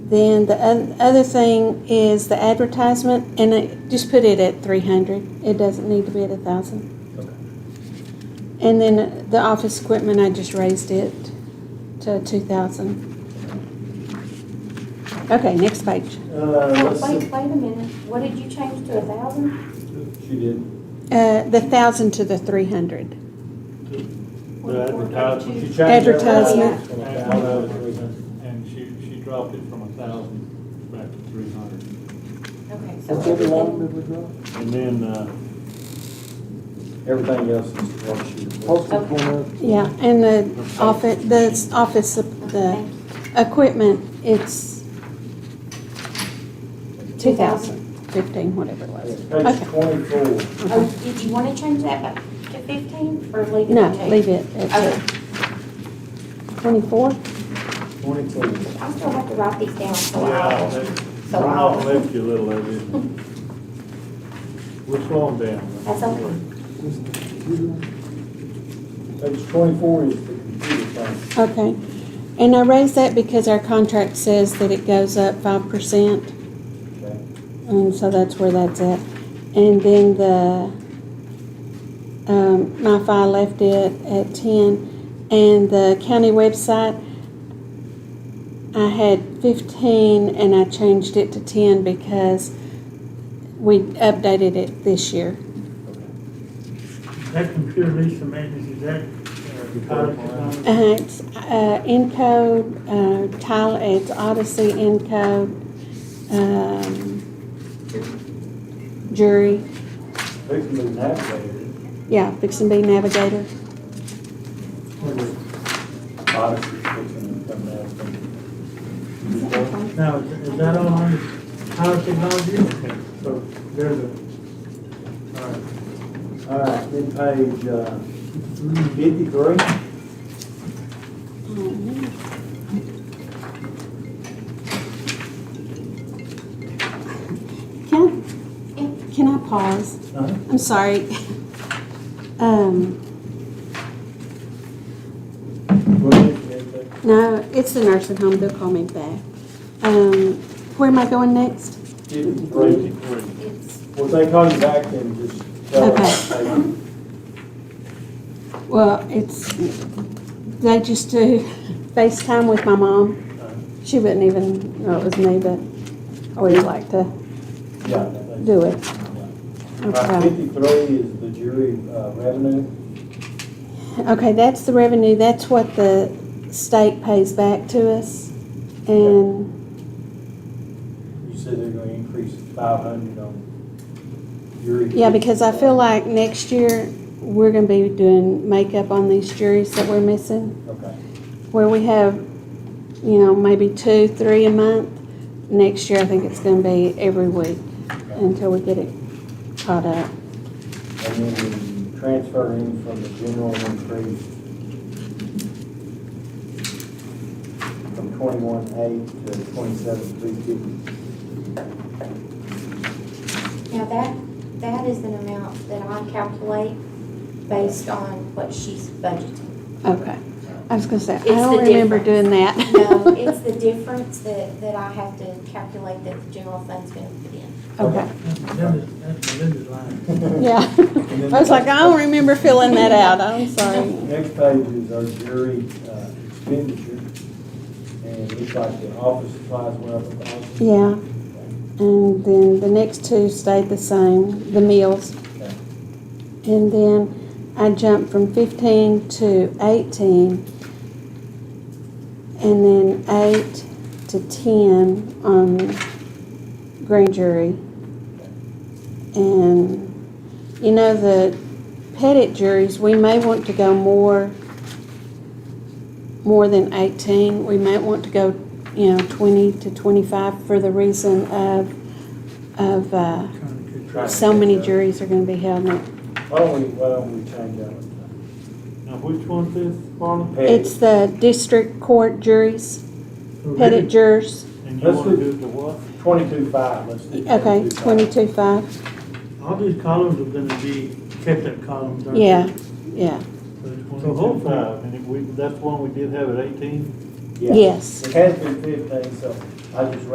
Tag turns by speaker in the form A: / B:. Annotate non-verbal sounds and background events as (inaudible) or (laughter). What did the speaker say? A: Then the oth- other thing is the advertisement, and it, just put it at three hundred. It doesn't need to be at a thousand.
B: Okay.
A: And then the office equipment, I just raised it to two thousand. Okay, next page.
B: Uh,
C: Oh,
B: let's
C: wait,
B: see.
C: wait a minute, what did you change to a thousand?
B: She did.
A: Uh, the thousand to the three hundred.
D: The advertisement, she changed
A: Advertisement.
B: From
D: that.
B: 1,000 to 300.
D: And she, she dropped it from a thousand back to three hundred.
C: Okay, so
B: What's every line
C: everything,
B: that we draw?
D: And then, uh,
B: Everything else is what she. reports.
E: Postal
C: Okay.
E: corner,
A: Yeah, and the office, the s- office, sup- the
C: thank you.
A: equipment, it's two thousand fifteen, whatever it was.
B: Page
A: Okay.
B: twenty-four.
C: Oh, did you wanna change that back to fifteen, or leave it
A: No,
C: at two?
A: leave it at
C: Okay,
A: twenty-four.
B: 24.
C: I still have to write these down, so
D: yeah,
C: I'll,
D: that-
C: so
D: Ronald
C: I'll,
D: left you a little of it. We're slowing down.
C: that's okay.
E: this is the computer one.
B: Page twenty-four is the computer thing.
A: Okay. And I raised that because our contract says that it goes up five percent.
B: Okay.
A: And so that's where that's at. And then the, um, my file left it at ten. And the county website, I had fifteen and I changed it to ten because we updated it this year.
F: That computer lease amendment, is that, uh, college loan?
A: Uh, it's, uh, Encode, uh, Tile, it's Odyssey Encode, um, Jury,
B: They can be navigated.
A: yeah, Fix and Be Navigator.
B: Odyssey, they can come navigate.
F: Now, is that all on college technology? Okay, so there's a, all right.
B: All right, then page uh, fifty-three.
A: Can, can I pause?
B: Uh-huh.
A: I'm sorry. Um,
B: What is it?
A: no, it's the nursing home, they'll call me back. Um, where am I going next?
B: Fifty-three.
C: It's,
B: Well, they call you back and just tell us. hey,
A: Well, it's, they just do (laughs) FaceTime with my mom. She wouldn't even know it was me, but I always like to
B: Yeah. they-
A: do it.
B: Right,
A: Okay.
B: Fifty-three is the jury uh, revenue.
A: Okay, that's the revenue, that's what the state pays back to us. And,
B: You said they're gonna increase five hundred on jury.
A: yeah, because I feel like next year, we're gonna be doing makeup on these juries that we're missing.
B: Okay.
A: Where we have, you know, maybe two, three a month, next year I think it's gonna be every week until we get it caught up.
B: And then we transfer in from the general increase from twenty-one eight to twenty-seven three fifty.
C: now that, that is an amount that I calculate based on what she's budgeting.
A: Okay. I was gonna say, I
C: It's the
A: don't remember
C: difference.
A: doing that.
C: No,
A: (laughs)
C: it's the difference that, that I have to calculate that the general fund's gonna put in.
B: (laughs)
A: Okay,
F: That's Linda's, that's Linda's line.
A: yeah. (laughs) I was like, I don't remember filling that out, I'm
C: (laughs)
A: sorry.
B: Next page is our jury uh, expenditure. And it looks like the office supplies went up a thousand.
A: Yeah, and then the next two stayed the same, the meals.
B: Okay.
A: And then I jumped from fifteen to eighteen. And then eight to ten on grand jury. And, you know, the pettit juries, we may want to go more, more than eighteen. We might want to go, you know, twenty to twenty-five for the reason of, of, uh,
B: We're trying to
A: so many
B: catch up.
A: juries are gonna be held next
B: Why don't we, why don't we change that one?
D: Now, which one's this, Marlon?
A: It's the district court juries,
F: Mm-hmm.
A: pettit
F: Really?
A: jurors.
D: And you
B: Let's
D: wanna
B: do-
D: do it to what?
B: Twenty-two five, let's do
A: Okay,
B: 22,500.
A: twenty-two five.
F: All these columns are gonna be kept-up columns, aren't they?
A: Yeah, yeah,
D: So hopefully, I mean, if we, that's one we did have at eighteen.
B: Yeah.
A: yes.
B: It has been fifteen, so I just